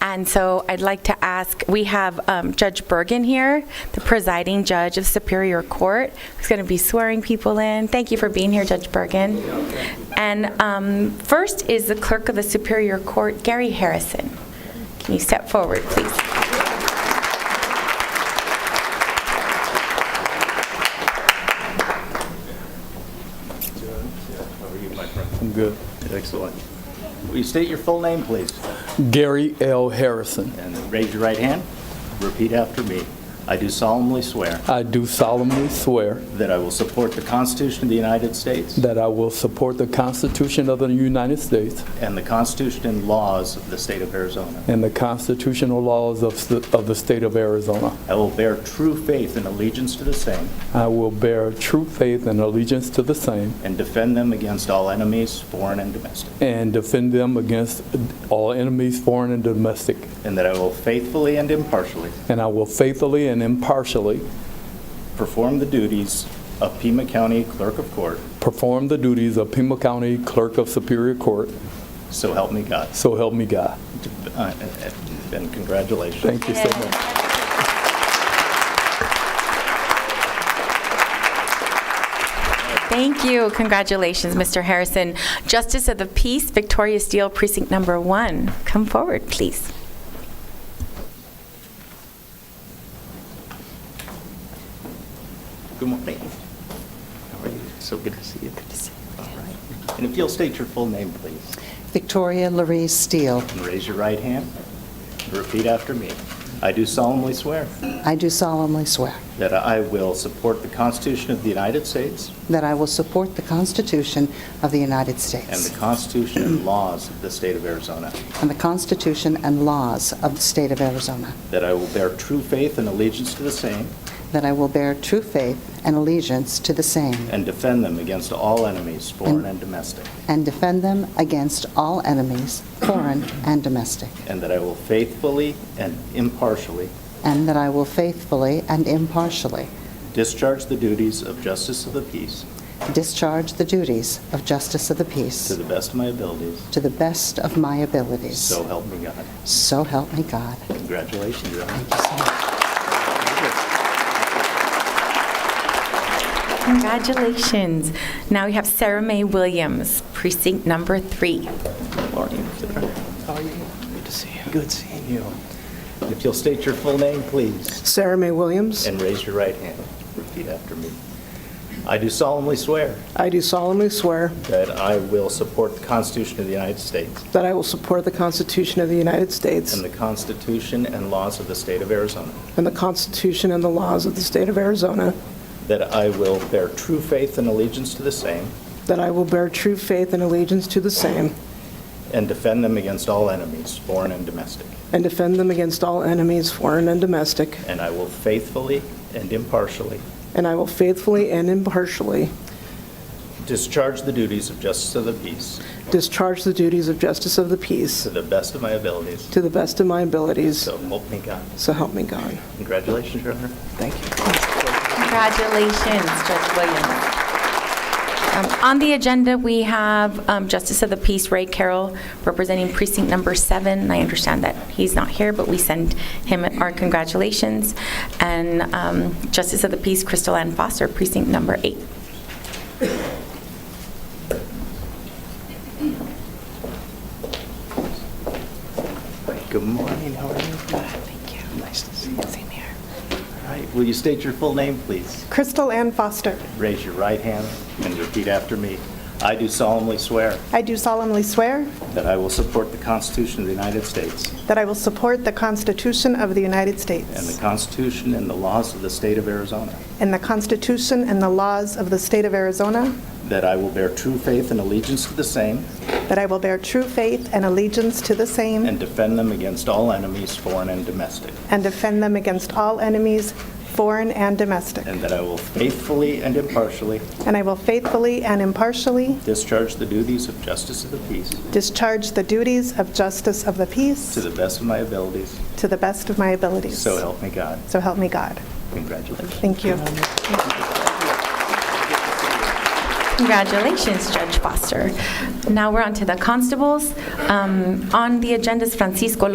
And so I'd like to ask, we have um, Judge Bergen here, the presiding judge of Superior Court, who's going to be swearing people in. Thank you for being here, Judge Bergen. And um, first is the clerk of the Superior Court, Gary Harrison. Can you step forward, please? How are you, my friend? Good. Excellent. Will you state your full name, please? Gary L. Harrison. And then raise your right hand. Repeat after me. I do solemnly swear I do solemnly swear that I will support the Constitution of the United States that I will support the Constitution of the United States and the Constitution and laws of the state of Arizona. and the constitutional laws of the, of the state of Arizona. I will bear true faith and allegiance to the same I will bear true faith and allegiance to the same and defend them against all enemies, foreign and domestic. and defend them against all enemies, foreign and domestic. And that I will faithfully and impartially And I will faithfully and impartially perform the duties of Pima County Clerk of Court, perform the duties of Pima County Clerk of Superior Court. so help me God. So help me God. Uh, And congratulations. Thank you so much. Thank you. Congratulations, Mr. Harrison. Justice of the Peace, Victoria Steele, Precinct Number One. Come forward, please. Good morning. How are you? So good to see you. Good to see you. All right. And if you'll state your full name, please, Victoria Laree Steele. and raise your right hand, and repeat after me. I do solemnly swear I do solemnly swear that I will support the Constitution of the United States that I will support the Constitution of the United and States the Constitution and laws of the state of Arizona, and the Constitution and laws of the state of Arizona, that I will bear true faith and allegiance to the same that I will bear true faith and allegiance to the same and defend them against all enemies, foreign and domestic, and defend them against all enemies, foreign and domestic, and that I will faithfully and impartially and that I will faithfully and impartially discharge the duties of justice of the peace discharge the duties of justice of the to peace the best of my abilities, to the best of my abilities. so help me God. So help me God. Congratulations, Your Honor. Thank you so much. Congratulations. Now we have Sarah Mae Williams, Precinct Number Three. Morning. How are you? Good to see you. Good seeing you. If you'll state your full name, please, Sarah Mae Williams, and raise your right hand. Repeat after me. I do solemnly swear I do solemnly swear that I will support the Constitution of the United States that I will support the Constitution of the United States and the Constitution and laws of the State of Arizona, and the Constitution and the laws of the state of Arizona, that I will bear true faith and allegiance to the same that I will bear true faith and allegiance to the same and defend them against all enemies, foreign and domestic, and defend them against all enemies, foreign and domestic, and I will faithfully and impartially and I will faithfully and impartially discharge the duties of justice of the peace discharge the duties of justice of the peace to the best of my abilities, to the best of my abilities, so help me God. so help me God. Congratulations, Your Honor. Thank you. Congratulations, Judge Williams. Um, On the agenda, we have um, Justice of the Peace Ray Carroll representing Precinct Number Seven. I understand that he's not here, but we send him our congratulations. And um, Justice of the Peace Crystal Ann Foster, Precinct Number Eight. Good morning, how are you? Thank you. Nice to see you. Same here. All right, will you state your full name, please? Crystal Ann Foster. Raise your right hand and repeat after me. I do solemnly swear I do solemnly swear that I will support the Constitution of the United States that I will support the Constitution of the United and the States Constitution and the laws of the state of Arizona, and the Constitution and the laws of the state of Arizona, that I will bear true faith and allegiance to the same that I will bear true faith and allegiance to the same and defend them against all enemies, foreign and domestic, and defend them against all enemies, foreign and domestic. and that I will faithfully and impartially And I will faithfully and impartially discharge the duties of justice of the peace discharge the duties of justice of the peace to the best of my abilities, to the best of my abilities. so help me God. So help me God. Congratulations. Thank you. Congratulations, Judge Foster. Now we're on to the constables. Um, On the agenda is Francisco